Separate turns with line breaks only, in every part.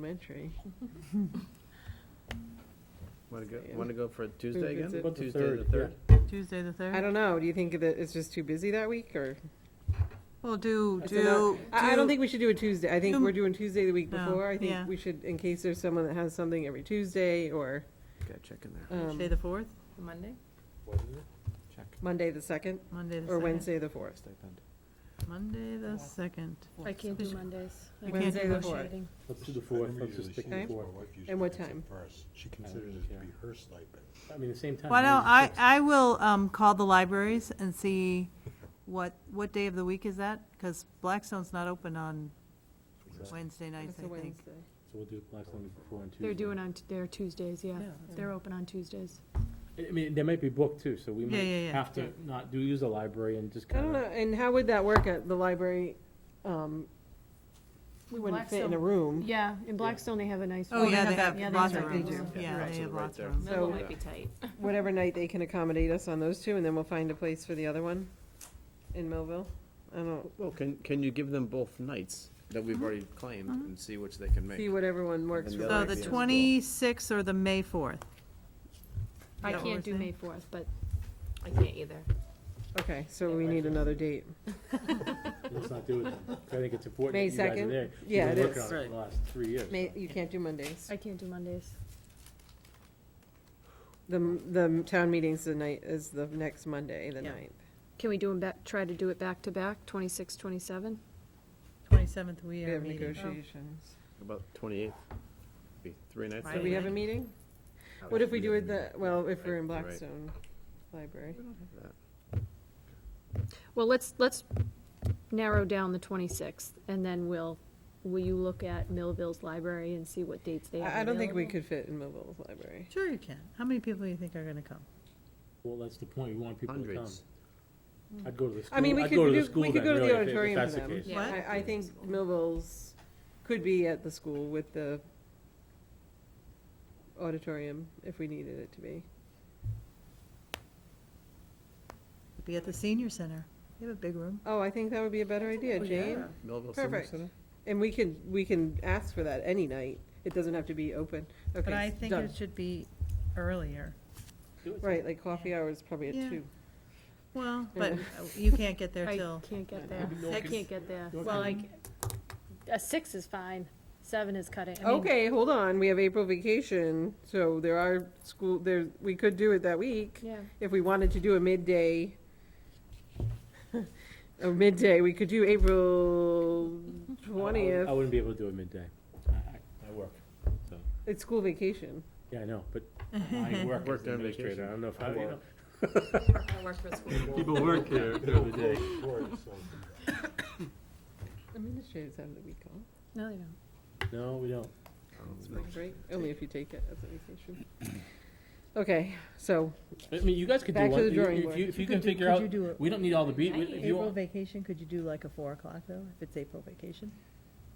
elementary.
Want to go,
Yeah.
want to go for Tuesday again?
Revisit. About
the
Tuesday, the
third,
third?
Tuesday the
I
third?
don't know, do you think that it's just too busy that week, or?
Well, do,
That's
do.
enough. I, I don't
do-
think we should do a Tuesday, I think
do-
we're doing Tuesday the week
No,
before, I
yeah.
think we should, in case there's someone that has something every Tuesday, or,
Got to check in there.
um,
Tuesday the fourth,
Monday?
What is it?
Check.
Monday the second,
Monday the second.
or Wednesday the fourth.
Stipend.
Monday the second.
I can't do
Is-
Mondays.
You
I'm
can't do the
negotiating.
Let's do the fourth,
Remember
let's
usually
just stick
she-
to
Okay.
the
my
fourth.
wife usually
And what
gets it
time?
first. She
don't
considers it to
care.
be her stipend.
I mean, the same time.
Why don't,
maybe
I,
six.
I will um, call the libraries and see what, what day of the week is that? Because Blackstone's not open on Wednesday nights,
That's a
I think.
Wednesday.
So we'll do it last one before on Tuesday.
They're doing on, t- their Tuesdays, yeah.
Yeah.
They're open on Tuesdays.
I I mean, they might be booked too, so we
Yeah,
might
yeah, yeah.
have to not do, use the library and just
I don't
kind
know,
of.
and how would that work at the library? Um, we
With
wouldn't fit in a
Blackstone-
room.
Yeah, in Blackstone, they have a nice.
Oh,
room.
yeah, they have
yeah,
lots
have
of
that.
rooms.
They do.
Yeah,
Right.
they have
Right
lots
there.
of rooms.
So- uh,
be tight.
Whatever night they can accommodate us on those two, and then we'll find a place for the other one in Millville. I don't,
Well, can, can you give them both nights that we've already claimed and see which they can make?
Uh-huh. see what everyone works
And
for.
the
So
other
them.
the
Yeah.
twenty-sixth or the May fourth?
I
That what we're
can't do
saying?
May fourth, but. I can't either.
Okay, so we need another date.
Let's not do it then. 'Cause I think it's important
May
that you guys are
2nd?
there.
Yeah,
We've
it
been working
is.
on it for the last three years.
May,
so.
you can't do Mondays.
I can't do Mondays.
The, the town meeting's the night, is the next Monday, the
Yeah.
ninth.
Can we do them back, try to do it back to back, twenty-six, twenty-seven?
Twenty-seventh, we
We
are
have
meeting.
negotiations.
About twenty-eighth? Be three nights.
So
out
we
of
have a
it.
meeting?
Oh,
What if we do it the, well, if we're in
Right, right.
Blackstone Library?
Well, let's, let's narrow down the twenty-sixth, and then we'll, will you look at Millville's library and see what dates they have
I, I don't think we
available?
could fit in Millville's library.
Oh, Sure you can. How many people do you think are gonna come?
Well, that's the point. We want people to come.
Hundreds.
I'd go to the school.
I mean, we
I'd
could
go to the
do-
school
we could
then,
go to the
really, if- if
auditorium
that's
for
the
them.
case.
Yeah. What?
I, I think Millville's could be at the school with the auditorium if we needed it to be.
Be at the senior center. They have a big room.
Oh, I think that would be a better idea, Jane.
Millville Civic
Perfect.
Center?
And we can, we can ask for that any night. It doesn't have to be open.
But I
Okay,
think
done.
it should be earlier.
Do it.
Right, like coffee hour is probably at
Yeah.
two.
Well, but uh, you can't get there
I
till,
can't get there.
Maybe no
I
kids-
can't get there.
no
Well, like, a six is fine. Seven is cutting. I mean,
Okay, hold on, we have April vacation, so there are school, there, we could do it that week.
Yeah.
If we wanted to do a midday, a midday, we could do April
I- I wouldn't- I
twentieth.
wouldn't be able to do it midday. I, I, I work, so.
It's school vacation.
Yeah, I know, but I work as
Worked
an
on
administrator,
vacation.
I don't know if, how do you know?
I work for school.
People work here during the day.
Administrators have the week off.
No, they don't.
No, we don't.
Spring break, only if you take it as a vacation. Okay, so,
I mean, you guys could do
Back to
one,
the
if
drawing
you,
board.
if you- if you can
could do-
figure
could
out,
you do it-
we don't need all the beat, if you
April
want.
vacation, could you do like a four o'clock though, if it's April vacation?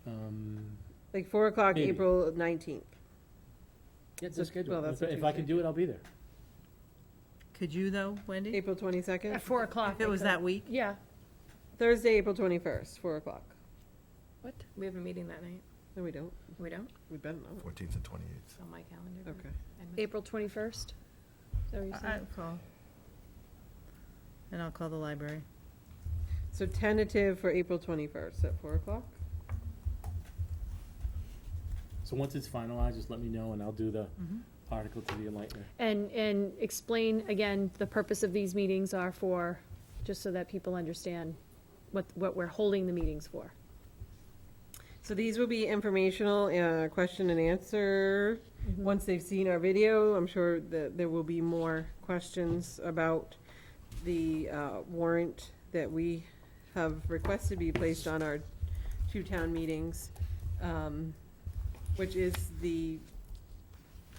Um,
like, four o'clock,
Maybe.
April nineteenth.
Get
Well,
the schedule,
that's
if
a
if I can
Tuesday.
do it, I'll be there.
Could you though, Wendy?
April twenty-second,
At four o'clock.
If it was that week?
Yeah.
Thursday, April twenty-first, four o'clock.
What? We have a meeting that night.
No, we don't,
We don't?
we better not.
Fourteenth and twenty-eighth.
It's on my calendar. Uh,
Okay.
April twenty-first? Is that what you
I'll
said?
call. And I'll call the library.
So tentative for April twenty-first at four o'clock?
So once it's finalized, just let me know and I'll do the article to the enlightener.
And, and explain again, the purpose of these meetings are for, just so that people understand what, what we're holding the meetings for.
So these will be informational, uh, question and answer. Once they've seen our video, I'm sure that there will be more questions about the, uh, warrant that we have requested be placed on our two town meetings, um, which is the,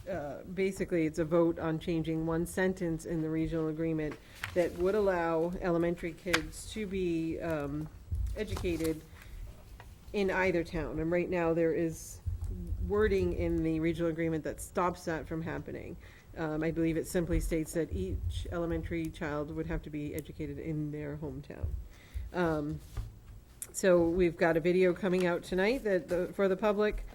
uh, basically, it's a vote on changing one sentence in the regional agreement that would allow elementary kids to be, um, educated in either town, and right now there is wording in the regional agreement that stops that from happening. Um, I believe it simply states that each elementary child would have to be educated in their hometown. Um, so we've got a video coming out tonight that, the- for the public